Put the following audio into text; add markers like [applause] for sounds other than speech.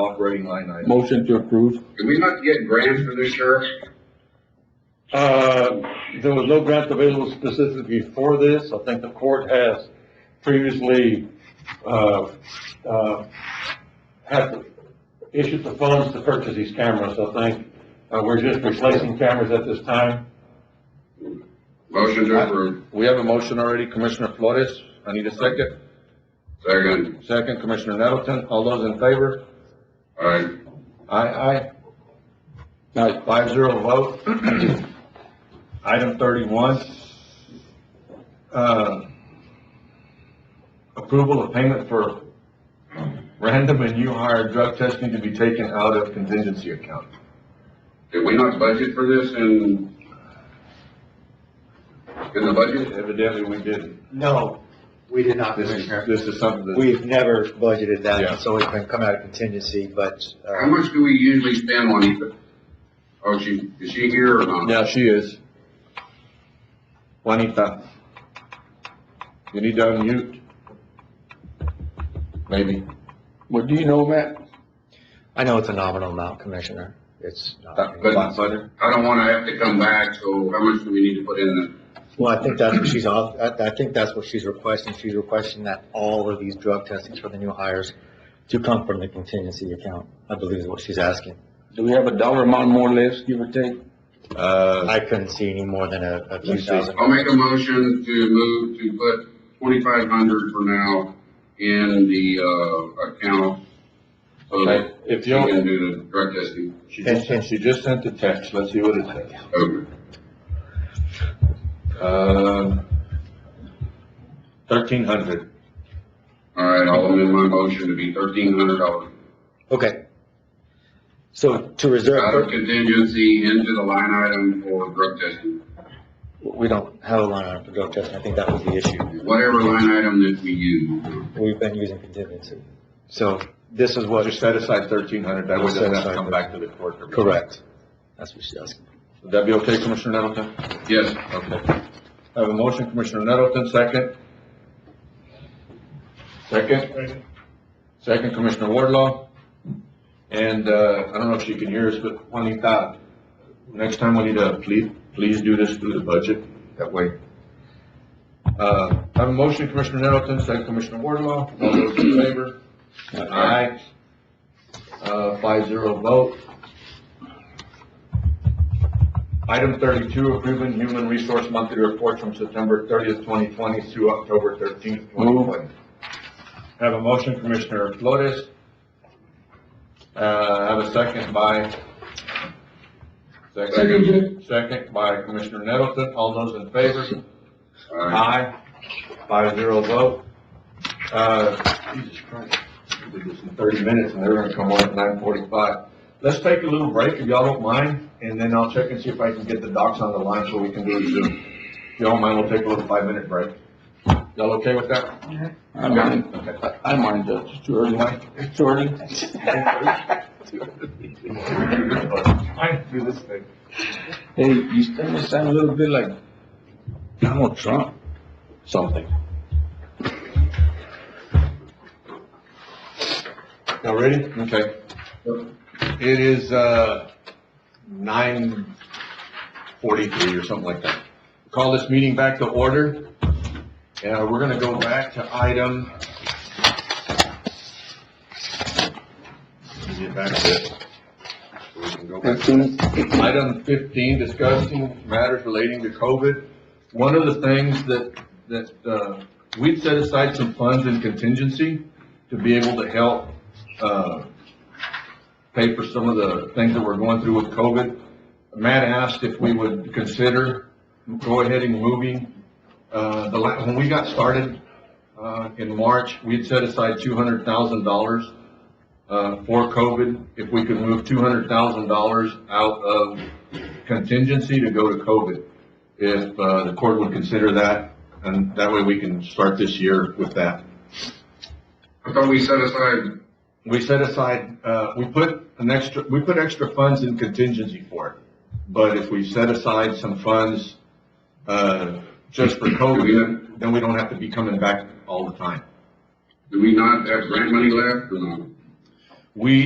operating line item. Motion to approve. Did we not get grants for this, Sheriff? Uh, there was no grant available specifically for this. I think the court has previously, uh, uh, had issued the funds to purchase these cameras. I think, uh, we're just replacing cameras at this time. Motion to approve. We have a motion already, Commissioner Flores. I need a second. Second. Second, Commissioner Nettleton. All those in favor? All right. Aye, aye. Aye. Five zero vote. [clears throat] Item thirty-one. Uh, approval of payment for random and new hire drug testing to be taken out of contingency account. Did we not budget for this in, in the budget? Evidently, we didn't. No, we did not, This is, Commissioner. this is something that. We've never budgeted that, Yeah. it's always been come out of contingency, but, How uh, much do we usually spend on each? Oh, she, is she here or not? Yeah, she is. Juanita. You need to unmute. Maybe. What do you know, Matt? I know it's a nominal amount, Commissioner. It's not, That- But- that's better. I don't wanna have to come back, so how much do we need to put in well, I think that's what she's, off- I, I think that's what she's requesting. She's requesting that all of these drug testings for the new hires to come from the contingency account, I believe is what she's asking. Do we have a dollar amount more or less, give or take? Uh, I couldn't see any more than a, a few Let's see. thousand. I'll make a motion to move to put twenty-five hundred for now in the, uh, account. So that if she you, can do the drug testing. she just, sent- she just sent the text, let's see what it says. Okay. Um, thirteen hundred. All right, I'll amend my motion to be thirteen hundred dollars. Okay. So to reserve. Out of contingency into the line item for drug testing, We don't have a line item for drug testing, I think that was the issue. whatever line item that we use. We've been using contingency. So this is what, Just set aside thirteen hundred, that way it doesn't have to come back to the court. correct. That's what she's asking. Would that be okay, Commissioner Nettleton? Yes, Okay. I have a motion, Commissioner Nettleton, second. Second? Second, Commissioner Wardlaw. And, uh, I don't know if she can hear us, but Juanita, next time we need to, please, please do this through the budget, that way. Uh, I have a motion, Commissioner Nettleton, second, Commissioner Wardlaw, all those in favor? Aye. Uh, five zero vote. Item thirty-two, approving human resource monthly report from September thirtieth, twenty twenty through October thirteenth, twenty twenty. Have a motion, Commissioner Flores. Uh, have a second by. Second, second by Commissioner Nettleton. All those in favor? all right. Aye. Five zero vote. Uh, Jesus Christ, we did this in thirty minutes and they're gonna come on at nine forty-five. Let's take a little break if y'all don't mind, and then I'll check and see if I can get the docs on the line so we can do it soon. If y'all don't mind, we'll take a little five-minute break. Y'all okay with that? I mind, Okay. I I mind, uh, it's too early, Mike. It's too [laughs] early. I do this thing. Hey, you starting to sound a little bit like Donald Trump, something. Y'all ready? Okay. It is, uh, nine forty-three or something like that. Call this meeting back to order. Uh, we're gonna go back to item. Let me Get back to it. We can go back. Fifteen? Item fifteen, discussing matters relating to COVID. One of the things that, that, uh, we'd set aside some funds in contingency to be able to help, uh, pay for some of the things that we're going through with COVID. Matt asked if we would consider go ahead and moving, uh, the, la- when we got started, uh, in March, we had set aside two hundred thousand dollars uh, for COVID, if we could move two hundred thousand dollars out of contingency to go to COVID, if, uh, the court would consider that, and that way we can start this year with that. I thought we set aside, We set aside, uh, we put an extra, we put extra funds in contingency for it, but if we set aside some funds, uh, just for COVID, then we don't have to be coming back all the time. do we not have grant money left or not? We